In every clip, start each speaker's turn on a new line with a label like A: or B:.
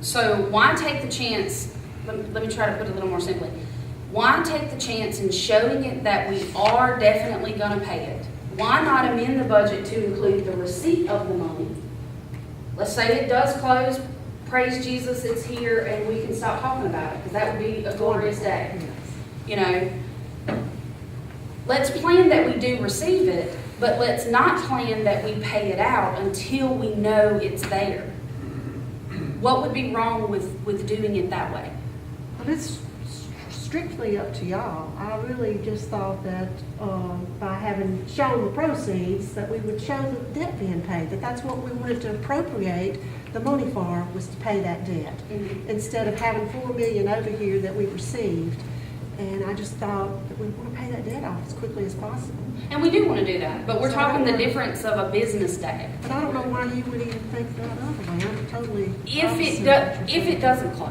A: So why take the chance, let me, let me try to put it a little more simply. Why take the chance in showing it that we are definitely gonna pay it? Why not amend the budget to include the receipt of the money? Let's say it does close, praise Jesus, it's here, and we can stop talking about it, because that would be a glorious day. You know, let's plan that we do receive it, but let's not plan that we pay it out until we know it's there. What would be wrong with, with doing it that way?
B: But it's strictly up to y'all. I really just thought that um, by having shown the proceeds, that we would show the debt being paid, that that's what we wanted to appropriate the money for, was to pay that debt, instead of having four million over here that we received. And I just thought that we want to pay that debt off as quickly as possible.
A: And we do want to do that, but we're talking the difference of a business day.
B: But I don't know why you would even think that other way. I'm totally.
A: If it,
B: opposite
A: do-
B: of what you're
A: if it
B: saying.
A: doesn't close,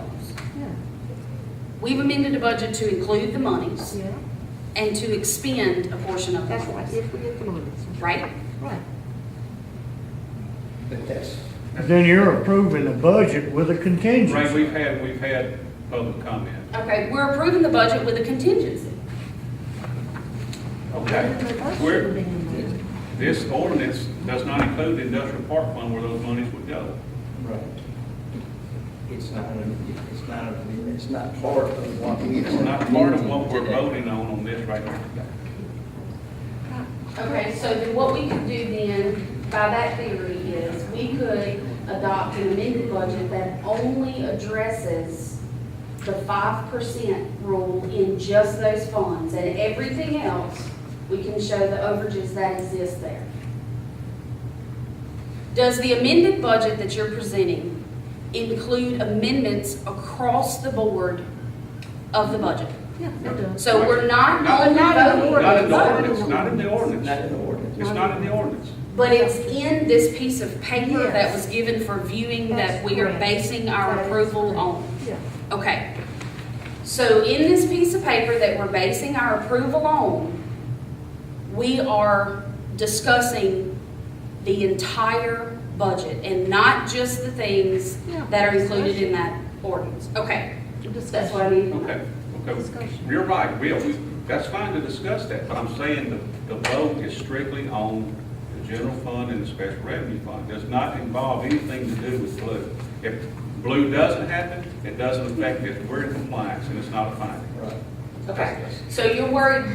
A: we've amended the budget to include the monies
B: Yeah, yeah,
A: and to expend a portion of the
B: that's right,
A: monies,
B: if we get the money.
A: right?
B: Right.
C: But that's,
D: Then you're approving the budget with a
E: Ray,
D: contingency.
E: we've had, we've had public comment.
A: Okay, we're approving the budget with a contingency.
E: Okay, we're, this ordinance does not include the industrial park fund where those monies would go.
C: right. It's not, an- it's not, an- it's not part of what we.
E: It's not part of what we're voting on on this right now.
A: Okay, so then what we could do then, by that theory, is we could adopt an amended budget that only addresses the five percent rule in just those funds, and everything else, we can show the overages that exist there. Does the amended budget that you're presenting include amendments across the board of the budget?
B: Yeah, it does.
A: So we're not only
B: Not in the
A: voting-
B: order.
E: Not in the ordinance, not in the
C: It's
E: ordinance.
C: not an ordinance.
E: It's not in the ordinance.
A: But it's in this piece of paper that
B: Yes.
A: was given for viewing that
B: That's
A: we are
B: correct.
A: basing our
B: That is
A: approval
B: correct.
A: on.
B: Yeah,
A: Okay. So in this piece of paper that we're basing our approval on, we are discussing the entire budget and not just the things
B: Yeah.
A: that are included in that ordinance. Okay, that's what I
B: discussion.
A: need.
E: Okay, okay.
B: Discussion.
E: You're right, we, we, that's fine to discuss that, but I'm saying the, the vote is strictly on the general fund and the special revenue fund. Does not involve anything to do with blue. If blue doesn't happen, it doesn't affect this. We're in compliance and it's not a finding.
C: Right.
A: Okay, so you're worried,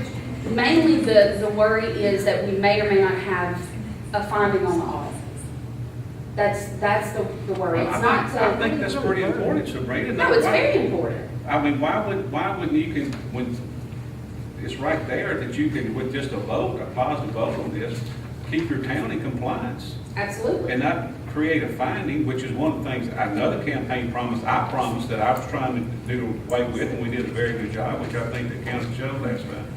A: mainly the, the worry is that we may or may not have a finding on the audit. That's, that's the, the worry,
E: I
A: it's
E: think-
A: not
E: I
A: so,
E: think that's pretty important, Sabrina.
A: no, it's very important.
E: I mean, why would, why wouldn't you can, when, it's right there that you can, with just a vote, a positive vote on this, keep your town in compliance
A: Absolutely.
E: and not create a finding, which is one of the things, another campaign promise, I promised that I was trying to do away with, and we did a very good job, which I think the council showed last time,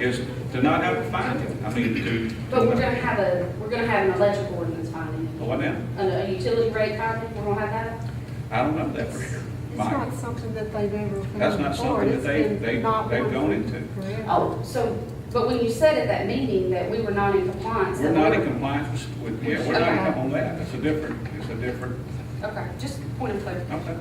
E: is to not have a finding. I mean, to.
A: But we're gonna have a, we're gonna have an electric ordinance finding,
E: What now?
A: a, a utility rate finding, we're gonna have that?
E: I don't know that for sure.
B: It's
E: Mike.
B: not something that they've ever.
E: That's not something that they-
B: have
E: they- they've gone into.
A: Oh, so, but when you said at that meeting that we were not in compliance.
E: We're
A: that we
E: not
A: were-
E: in compliance with, yeah, we're not in- on that, it's a different, it's a different,
A: Okay, just point of clarity.
E: okay.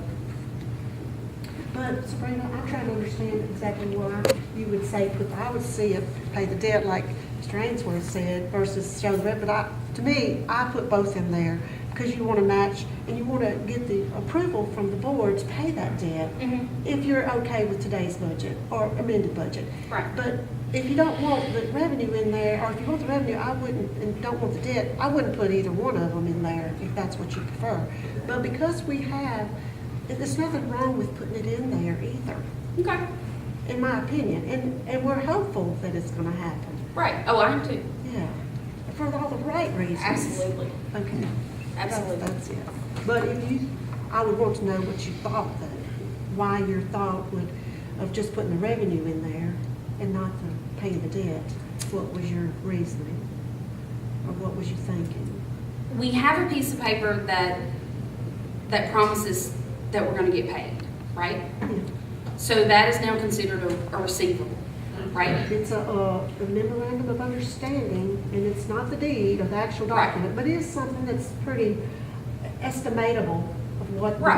B: But Sabrina, I'm trying to understand exactly why you would say, put- I would see it, pay the debt like Mr. Ainsworth said versus show the rent. But I, to me, I put both in there because you want to match and you want to get the approval from the board to pay that debt.
A: Mhm.
B: if you're okay with today's budget or amended budget.
A: Right.
B: But if you don't want the revenue in there, or if you want the revenue, I wouldn't, and don't want the debt, I wouldn't put either one of them in there if that's what you prefer. But because we have, and there's nothing wrong with putting it in there either,
A: Okay,
B: in my opinion. And, and we're hopeful that it's gonna happen,
A: right, oh, I am too,
B: yeah, for all the right reasons.
A: absolutely,
B: Okay.
A: absolutely.
B: That's it. But if you, I would want to know what you thought though, why your thought would, of just putting the revenue in there and not the paying the debt. What was your reasoning? Or what was you thinking?
A: we have a piece of paper that, that promises that we're gonna get paid, right? So that is now considered a, a receivable, right?
B: It's a, uh, a memorandum of understanding and it's not the deed or the actual
A: Right.
B: document, but it is something that's pretty estimatable of what. the
A: Right.